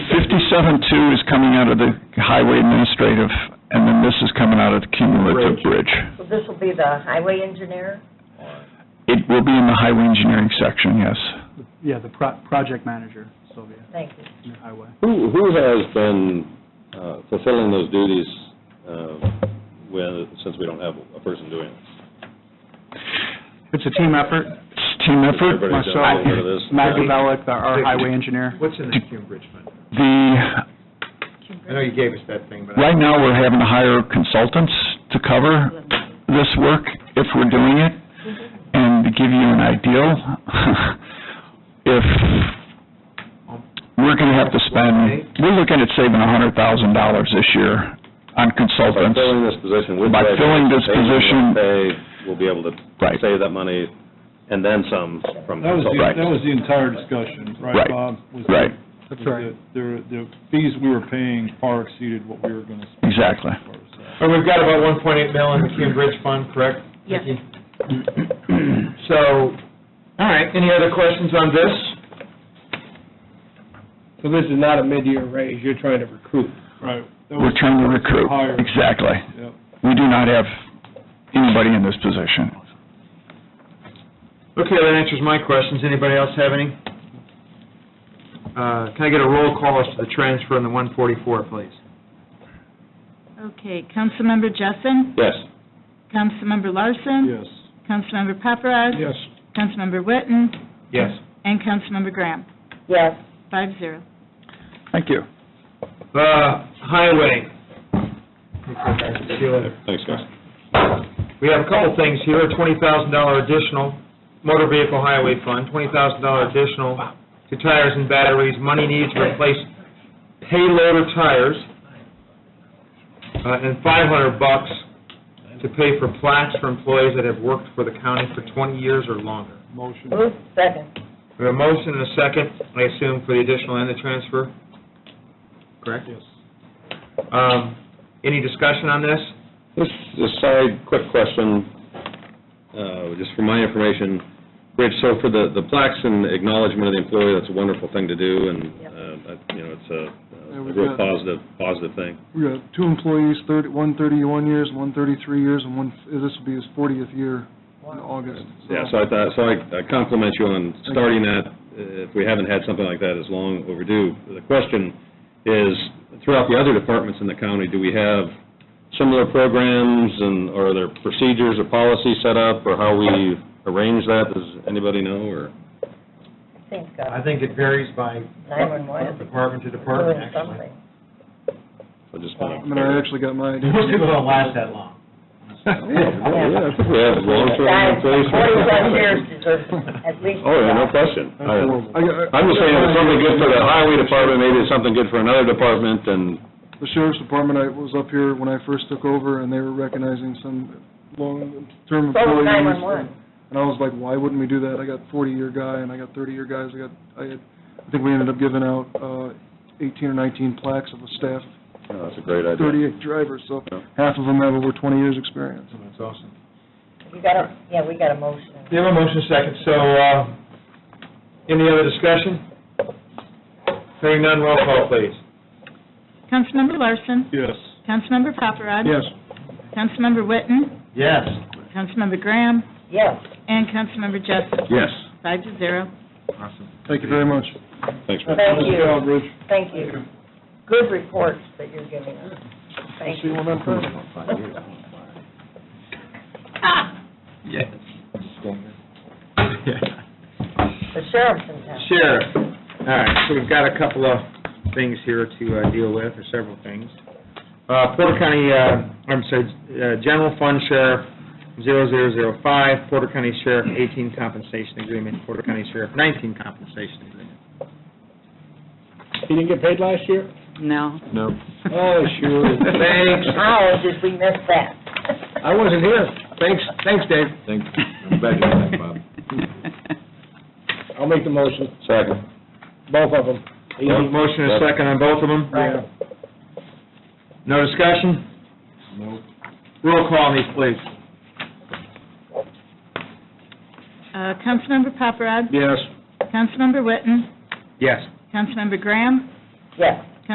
seven-two is coming out of the highway administrative, and then this is coming out of the cumulative bridge. So this will be the highway engineer? or- It will be in the highway engineering section, yes. Yeah, the pro- project manager, Sylvia, Thank in you. the highway. Who, who has been uh, fulfilling those duties uh, with, since we don't have a person doing it? It's a team effort. It's a team effort. Everybody's done a Myself, little bit of this. Matt Gavelic, our highway engineer. What's in the Cume Bridge Fund? The, I know you gave us that thing, but. I- right now, we're having to hire consultants to cover this work if we're doing it. And to give you an idea, if we're gonna have to spend, we're looking at saving a hundred thousand dollars this year on By consultants. filling this position with... By budget, filling this saving what position- They will be able to Right. save that money and then some from That was, the- Right. that was the entire discussion, Right. right, Bob? Was that- Right, was That's right. that The, the fees we were paying far exceeded what we were gonna spend. exactly. But we've got about one point eight mil in the Cume Bridge Fund, correct? Yes. Vicki? So, all right, any other questions on this? So this is not a mid-year raise, you're trying to recruit. Right. That We're was- trying to recruit, Hire. exactly. Yep. We do not have anybody in this position. Okay, that answers my questions. Anybody else have any? Uh, can I get a roll call as to the transfer in the one forty-four, please? Okay, Councilmember Jessen, Yes. Councilmember Larson, Yes. Councilmember Paparad, Yes. Councilmember Witten, Yes. and Councilmember Graham, Yes, five zero. Thank you. Uh, highway. See you later. Thanks, guys. We have a couple things here, twenty thousand dollar additional, motor vehicle highway fund, twenty thousand dollar additional to tires and batteries, money needs to replace payloader tires, uh, and five hundred bucks to pay for plaques for employees that have worked for the county for twenty years or longer. Motion. move second. We have a motion and a second, I assume, for the additional and the transfer? Correct? Yes. Um, any discussion on this? This is a side, quick question, uh, just for my information. Rich, so for the, the plaques and acknowledgement of the employee, that's a wonderful thing to do, and, Yep. uh, I- you know, it's a- Yeah, a we've real got- positive, positive thing. We got two employees, thirty, one thirty-one years, one thirty-three years, and one, this will be his fortieth year in August. Yeah, so I thought, so I I compliment you on starting that, uh, if we haven't had something like that, it's long overdue. The question is, throughout the other departments in the county, do we have similar programs, and are there procedures or policies set up, or how we arrange that? Does anybody know, or? I think uh, I think it varies by nine-one-one is department to department, doing actually. something. I just wanna- I mean, I actually got my idea. Most people don't last that long. Yeah, I think we have long-term Guys, employees. forty-plus years deserves at least. Oh, yeah, no question. That's horrible. I got- I'm just saying, if it's something good for the highway department, maybe it's something good for another department, and The sheriff's department, I was up here when I first took over, and they were recognizing some long-term So employees. was nine-one-one. And I was like, why wouldn't we do that? I got forty-year guy, and I got thirty-year guys, I got, I had, I think we ended up giving out, uh, eighteen or nineteen plaques of the staff, no, oh, that's a great idea. thirty-eight drivers, so Yeah. half of them have over twenty years' experience. That's awesome. You got a, yeah, we got a motion. We have a motion second, so, uh, any other discussion? Hearing none, roll call, please. Councilmember Larson, Yes. Councilmember Paparad, Yes. Councilmember Witten, Yes. Councilmember Graham, Yes, and Councilmember Jessen, Yes. five to zero. Awesome. Thank you very much. Thanks, Rick. thank Good job, you, Rich. thank you. Good reports that you're giving us. Thank See you you. on that Thursday. Yes. The sheriff's in town. Sheriff, all right, so we've got a couple of things here to uh, deal with, or several things. Uh, Porter County, uh, I'm sorry, uh, General Fund Sheriff, 0005, Porter County Sheriff, 18 compensation agreement, Porter County Sheriff, 19 compensation agreement. He didn't get paid last year? No. No. Oh, sure. Thanks. How did we miss that? I wasn't here. Thanks, thanks, Dave. Thanks. I'm glad you asked, Bob. I'll make the motion, Second. both of them. Motion and a second on both of them? Yeah. No discussion? No. Roll call on these, please. Uh, Councilmember Paparad, Yes. Councilmember Witten, Yes. Councilmember Graham, Yes,